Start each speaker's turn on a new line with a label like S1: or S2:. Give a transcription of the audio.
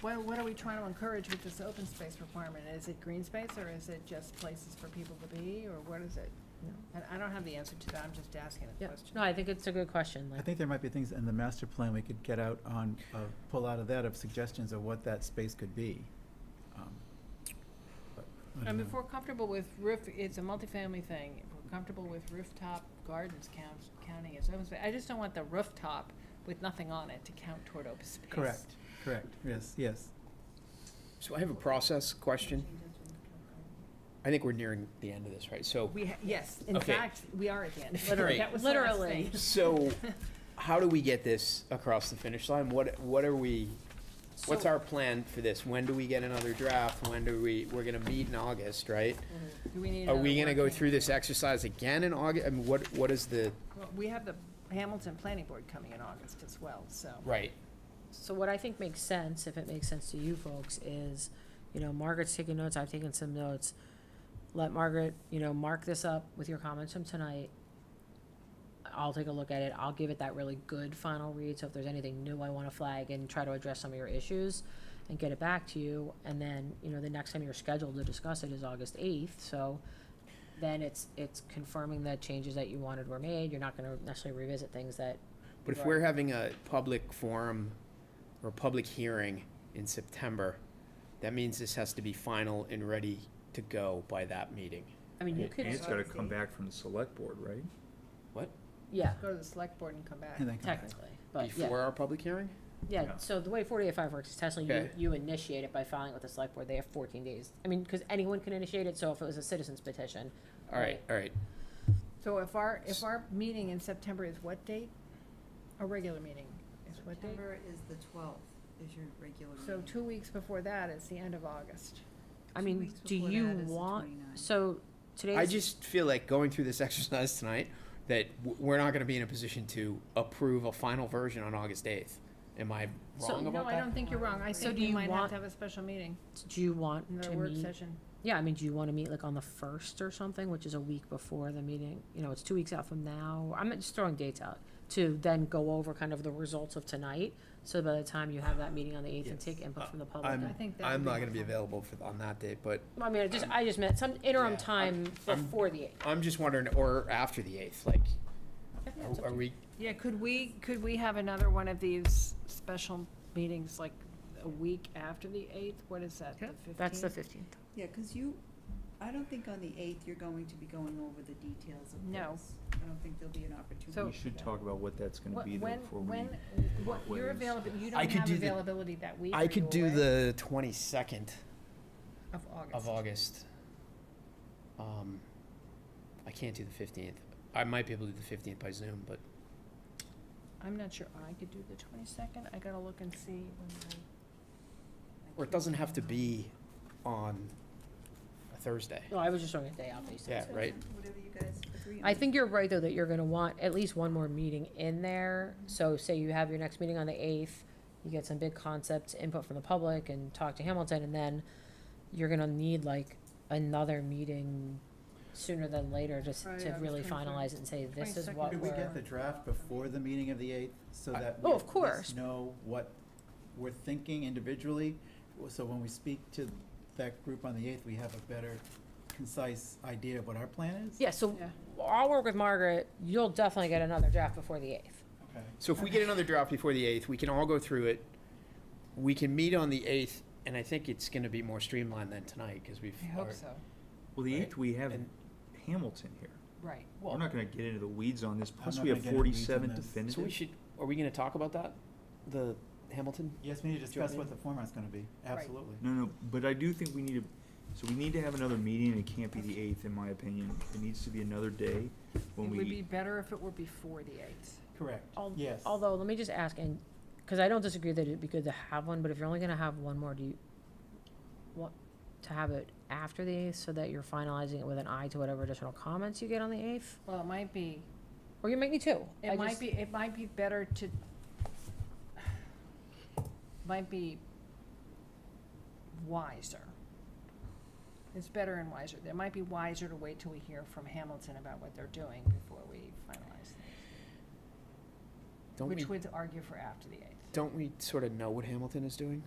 S1: What, what are we trying to encourage with this open space requirement? Is it green space, or is it just places for people to be, or what is it? And I don't have the answer to that, I'm just asking a
S2: Yeah,
S1: question.
S2: no, I think it's a good question,
S3: I
S2: like,
S3: think there might be things in the master plan we could get out on, uh, pull out of that of suggestions of what that space could be. Um, but I
S1: I
S3: don't
S1: mean, if
S3: know.
S1: we're comfortable with roof, it's a multifamily thing, if we're comfortable with rooftop gardens count, counting as open space, I just don't want the rooftop with nothing on it to count toward open space.
S3: Correct, correct, yes, yes.
S4: So I have a process question. I think we're nearing the end of this, right? So,
S1: We, ha- yes, in
S4: Okay.
S1: fact, we are again.
S4: Literally.
S1: That was the last
S2: Literally.
S1: thing.
S4: so how do we get this across the finish line? What, what are we, what's
S1: So-
S4: our plan for this? When do we get another draft? When do we, we're gonna meet in August, right?
S1: Do we need
S4: Are we
S1: another
S4: gonna go
S1: working-
S4: through this exercise again in August? I mean, what, what is the,
S1: Well, We have the Hamilton Planning Board coming in August as well, so.
S4: right?
S2: so what I think makes sense, if it makes sense to you folks, is, you know, Margaret's taking notes, I've taken some notes. Let Margaret, you know, mark this up with your comments from tonight. I'll take a look at it, I'll give it that really good final read, so if there's anything new I wanna flag and try to address some of your issues and get it back to you, and then, you know, the next time you're scheduled to discuss it is August eighth, so then it's, it's confirming that changes that you wanted were made, you're not gonna necessarily revisit things that
S4: But if
S2: Right.
S4: we're having a public forum or public hearing in September, that means this has to be final and ready to go by that meeting.
S2: I mean, you
S5: And
S2: could,
S5: it's gotta come back from the select board, right?
S4: What?
S2: yeah,
S1: Go to the select board and come back.
S3: And then come back.
S2: technically, but yeah,
S4: Before our public hearing?
S2: yeah,
S5: Yeah.
S2: so the way forty-eight five works is technically you,
S4: Okay.
S2: you initiate it by filing with the select board, they have fourteen days. I mean, cause anyone can initiate it, so if it was a citizen's petition,
S4: All right, all right.
S1: So if our, if our meeting in September is what date? A regular meeting is what date?
S6: September is the twelfth, is your regular meeting.
S1: So two weeks before that is the end of August.
S2: I
S6: Two
S2: mean,
S6: weeks
S2: do
S6: before
S2: you
S6: that is the
S2: want,
S6: 29th.
S2: so today's.
S4: I just feel like going through this exercise tonight, that w- we're not gonna be in a position to approve a final version on August eighth. Am I
S2: So-
S4: wrong
S1: No,
S4: about
S1: I don't
S4: that?
S1: think you're wrong. I
S2: So
S1: think
S2: do
S1: we
S2: you
S1: might have
S2: want-
S1: to have a special meeting,
S2: Do you want to
S1: another work
S2: meet,
S1: session.
S2: yeah, I mean, do you wanna meet like on the first or something, which is a week before the meeting, you know, it's two weeks out from now, I'm just throwing dates out. To then go over kind of the results of tonight, so by the time you have that meeting on the eighth and
S4: Yes. Uh,
S2: take input from the public.
S1: I
S4: I'm,
S1: think that
S4: I'm
S1: would be
S4: not gonna be
S1: helpful.
S4: available for, on that date, but
S2: I mean, I just, I just meant some interim
S4: Yeah,
S2: time
S4: I'm-
S2: before the eighth.
S4: I'm just wondering, or after the eighth, like, are- are we,
S1: Yeah, could we, could we have another one of these special meetings like a week after the eighth? What is that, the fifteenth?
S2: That's the fifteenth.
S6: Yeah, because you, I don't think on the eighth you're going to be going over the details of
S1: No.
S6: this. I don't think there'll be an opportunity.
S1: So-
S5: We should talk about what that's gonna be though
S1: When,
S5: before we.
S1: when, what,
S5: what
S1: you're
S5: is-
S1: available, you
S4: I
S1: don't
S4: could
S1: have
S4: do the-
S1: availability that week?
S4: I
S1: Are
S4: could
S1: you
S4: do
S1: away?
S4: the twenty-second
S1: Of August.
S4: of August. Um, I can't do the fifteenth. I might be able to do the fifteenth by Zoom, but
S1: I'm not sure I could do the twenty-second. I gotta look and see when
S4: or it doesn't have to be on a Thursday.
S2: No, I was just throwing a day out based on.
S4: Yeah,
S6: So,
S4: right.
S6: Whatever you guys agree on.
S2: I think you're right, though, that you're gonna want at least one more meeting in there. So say you have your next meeting on the eighth, you get some big concepts, input from the public and talk to Hamilton, and then you're gonna need like another meeting sooner than later just
S1: Right,
S2: to
S1: August
S2: really
S1: 23rd.
S2: finalize it and say, this is
S1: 22nd.
S2: what
S3: Could we get the
S2: we're.
S3: draft before the meeting of the eighth, so
S4: I-
S3: that
S2: Oh,
S3: we
S2: of
S3: at least
S2: course.
S3: know what we're thinking individually, w- so when we speak to that group on the eighth, we have a better concise idea of what our plan is?
S2: Yeah, so
S1: Yeah.
S2: I'll work with Margaret. You'll definitely get another draft before the eighth.
S3: Okay.
S4: So if we get another draft before the eighth, we can all go through it. We can meet on the eighth, and I think it's gonna be more streamlined than tonight, cause we've.
S1: I hope
S4: already-
S1: so,
S5: Well, the
S4: Right.
S5: eighth, we have
S4: And-
S5: Hamilton here.
S1: right.
S5: We're not gonna get into the weeds on this, plus
S3: not
S5: we
S3: gonna
S5: have
S3: get into weeds on
S5: forty-seven
S3: this.
S5: definitive.
S4: So we should, are we gonna talk about that? The Hamilton?
S3: Yes, we need to
S4: Do you want
S3: discuss what the format's gonna be,
S1: Right.
S3: absolutely.
S5: No, no, but I do think we need to, so we need to have another meeting, and it can't be the eighth, in my opinion. It needs to be another day
S1: It
S5: when
S1: would be
S5: we,
S1: better if it were before the eighth.
S3: Correct,
S2: Al-
S3: yes.
S2: Although, let me just ask, and, because I don't disagree that it'd be good to have one, but if you're only gonna have one more, do you want to have it after the eighth so that you're finalizing it with an eye to whatever additional comments you get on the eighth?
S1: Well, it might be,
S2: Or you might need two. I
S1: it might
S2: just-
S1: be, it might be better to, might be wiser. It's better and wiser. It might be wiser to wait till we hear from Hamilton about what they're doing before we finalize things,
S4: Don't we,
S1: which would argue for after the eighth.
S4: don't we sort of know what Hamilton is doing?